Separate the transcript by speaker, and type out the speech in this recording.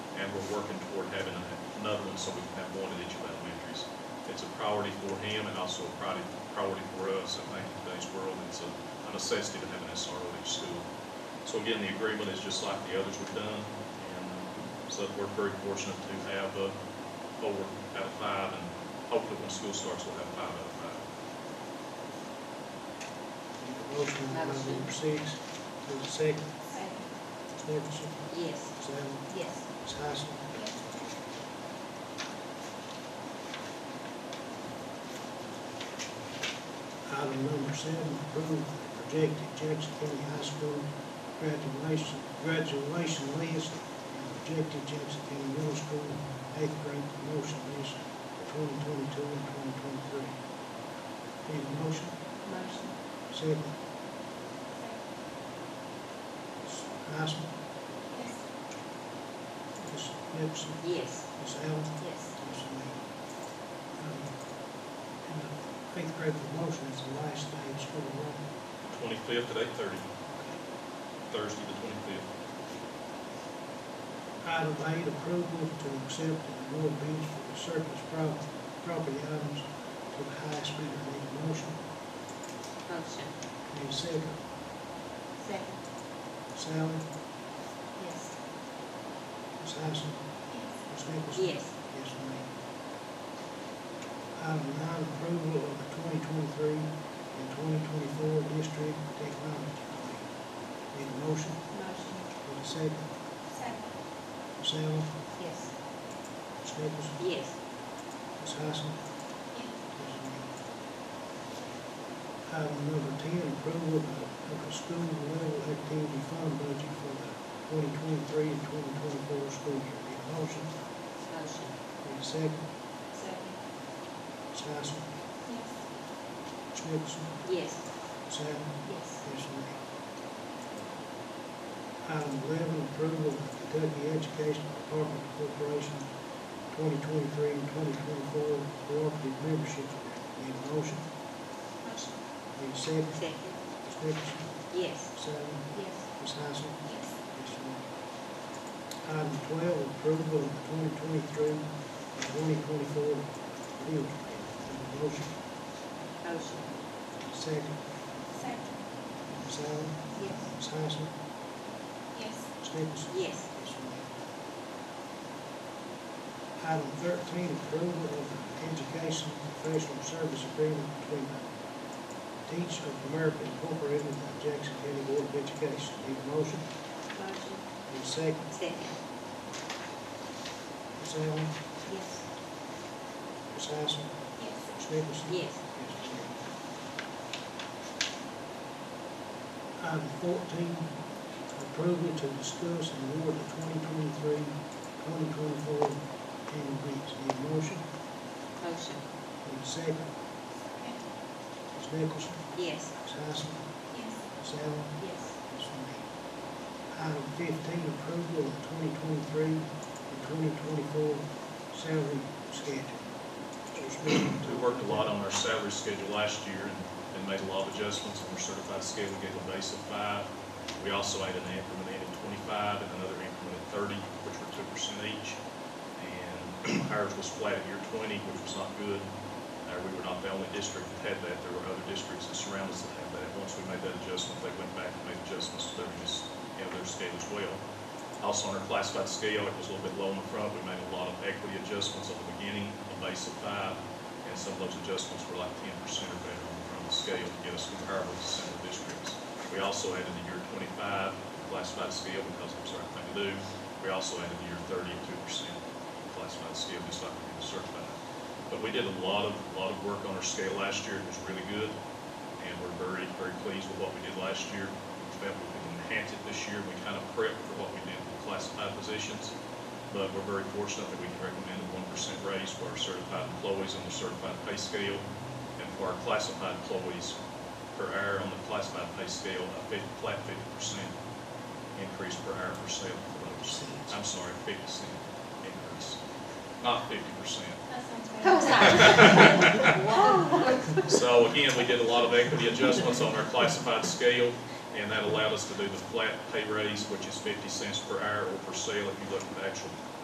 Speaker 1: having another one, so we can have one at each of elementaries. It's a priority for him and also a priority, priority for us, I think, in today's world, it's a a necessity to have an SRO at each school. So again, the agreement is just like the others we've done, and so we're very fortunate to have uh, four out of five, and hopefully when school starts, we'll have five out of five.
Speaker 2: Motion, uh,
Speaker 3: Motion.
Speaker 2: number six, there's a second, Ms. Nicholson,
Speaker 3: Yes.
Speaker 2: Ms. Allen,
Speaker 3: Yes.
Speaker 2: Ms. Hyson. Item number seven, approve projected Jackson County High School graduation, graduation list, and projected Jackson County Middle School eighth grade promotion list for twenty twenty-two and twenty twenty-three. Need a motion?
Speaker 3: Motion.
Speaker 2: Second. Ms. Hyson, Ms. Gibson,
Speaker 3: Yes.
Speaker 2: Ms. Allen.
Speaker 3: Yes.
Speaker 2: um, Eighth grade promotion is the last day of school, right?
Speaker 1: Twenty-fifth at eight-thirty, Thursday the twenty-fifth.
Speaker 2: Item eight, approval to accept and award bids for the surplus prop- property items to the highest bidder. Need a motion?
Speaker 3: Motion.
Speaker 2: Need a second?
Speaker 3: Second.
Speaker 2: Sally,
Speaker 3: Yes.
Speaker 2: Ms. Hyson, Ms. Nicholson?
Speaker 3: Yes.
Speaker 2: Yes, ma'am. Item nine, approval of the twenty twenty-three and twenty twenty-four district technology plan. Need a motion?
Speaker 3: Motion.
Speaker 2: Need a second?
Speaker 3: Second.
Speaker 2: Sally,
Speaker 3: Yes.
Speaker 2: Ms. Nicholson?
Speaker 3: Yes.
Speaker 2: Ms. Hyson? Item number ten, approval of the- of the school level activity fund budget for the twenty twenty-three and twenty twenty-four school year. Need a motion?
Speaker 3: Motion.
Speaker 2: Need a second?
Speaker 3: Second.
Speaker 2: Ms. Hyson,
Speaker 3: Yes.
Speaker 2: Ms. Nicholson,
Speaker 3: Yes.
Speaker 2: Ms. Allen,
Speaker 3: Yes.
Speaker 2: yes, ma'am. Item eleven, approval of the Kentucky Education Department Corporation twenty twenty-three and twenty twenty-four cooperative membership agreement. Need a motion?
Speaker 3: Motion.
Speaker 2: Need a second?
Speaker 3: Second.
Speaker 2: Ms. Nicholson,
Speaker 3: Yes.
Speaker 2: Ms. Allen,
Speaker 3: Yes.
Speaker 2: Ms. Hyson,
Speaker 3: Yes.
Speaker 2: Yes, ma'am. Item twelve, approval of the twenty twenty-three and twenty twenty-four field trip. Need a motion,
Speaker 3: Motion.
Speaker 2: second,
Speaker 3: Second.
Speaker 2: Ms. Allen,
Speaker 3: Yes.
Speaker 2: Ms. Hyson,
Speaker 3: Yes.
Speaker 2: Ms. Nicholson.
Speaker 3: Yes.
Speaker 2: Yes, ma'am. Item thirteen, approval of the education professional service agreement between Teach of America Incorporated and Jackson County Board of Education. Need a motion,
Speaker 3: Motion.
Speaker 2: need a second,
Speaker 3: Second.
Speaker 2: Ms. Allen,
Speaker 3: Yes.
Speaker 2: Ms. Hyson,
Speaker 3: Yes.
Speaker 2: Ms. Nicholson.
Speaker 3: Yes.
Speaker 2: Item fourteen, approval to discuss and award the 2023-2024 annual bids. Need a motion?
Speaker 3: Motion.
Speaker 2: Need a second? Ms. Nicholson,
Speaker 3: Yes.
Speaker 2: Ms. Hyson,
Speaker 3: Yes.
Speaker 2: Ms. Allen,
Speaker 3: Yes.
Speaker 2: Ms. Lee. Item fifteen, approval of twenty twenty-three and twenty twenty-four salary schedule. Mr. Smith.
Speaker 1: We worked a lot on our salary schedule last year and, and made a lot of adjustments on our certified schedule, gave a base of five. We also added an increment in at twenty-five and another increment at thirty, which were two percent each. And ours was flat at year twenty, which was not good. Uh, we were not the only district that had that. There were other districts that surround us that had that. Once we made that adjustment, they went back and made adjustments to their, you know, their scale as well. Also on our classified scale, it was a little bit low in the front. We made a lot of equity adjustments on the beginning, a base of five. And some of those adjustments were like ten percent or better on the front of the scale to get us comparable to some of the districts. We also added the year twenty-five classified scale because it was the right thing to do. We also added the year thirty at two percent classified scale, just like we did the certified. But we did a lot of, lot of work on our scale last year. It was really good. And we're very, very pleased with what we did last year. We felt we could enhance it this year. We kind of prepped for what we did with classified positions. But we're very fortunate that we can recommend a one percent raise for our certified employees on the certified pay scale. And for our classified employees per hour on the classified pay scale, a fif- flat fifty percent increase per hour per sale for those. I'm sorry, fifty cent increase, not fifty percent. So again, we did a lot of equity adjustments on our classified scale, and that allowed us to do the flat pay raise, which is fifty cents per hour or per sale if you look at the actual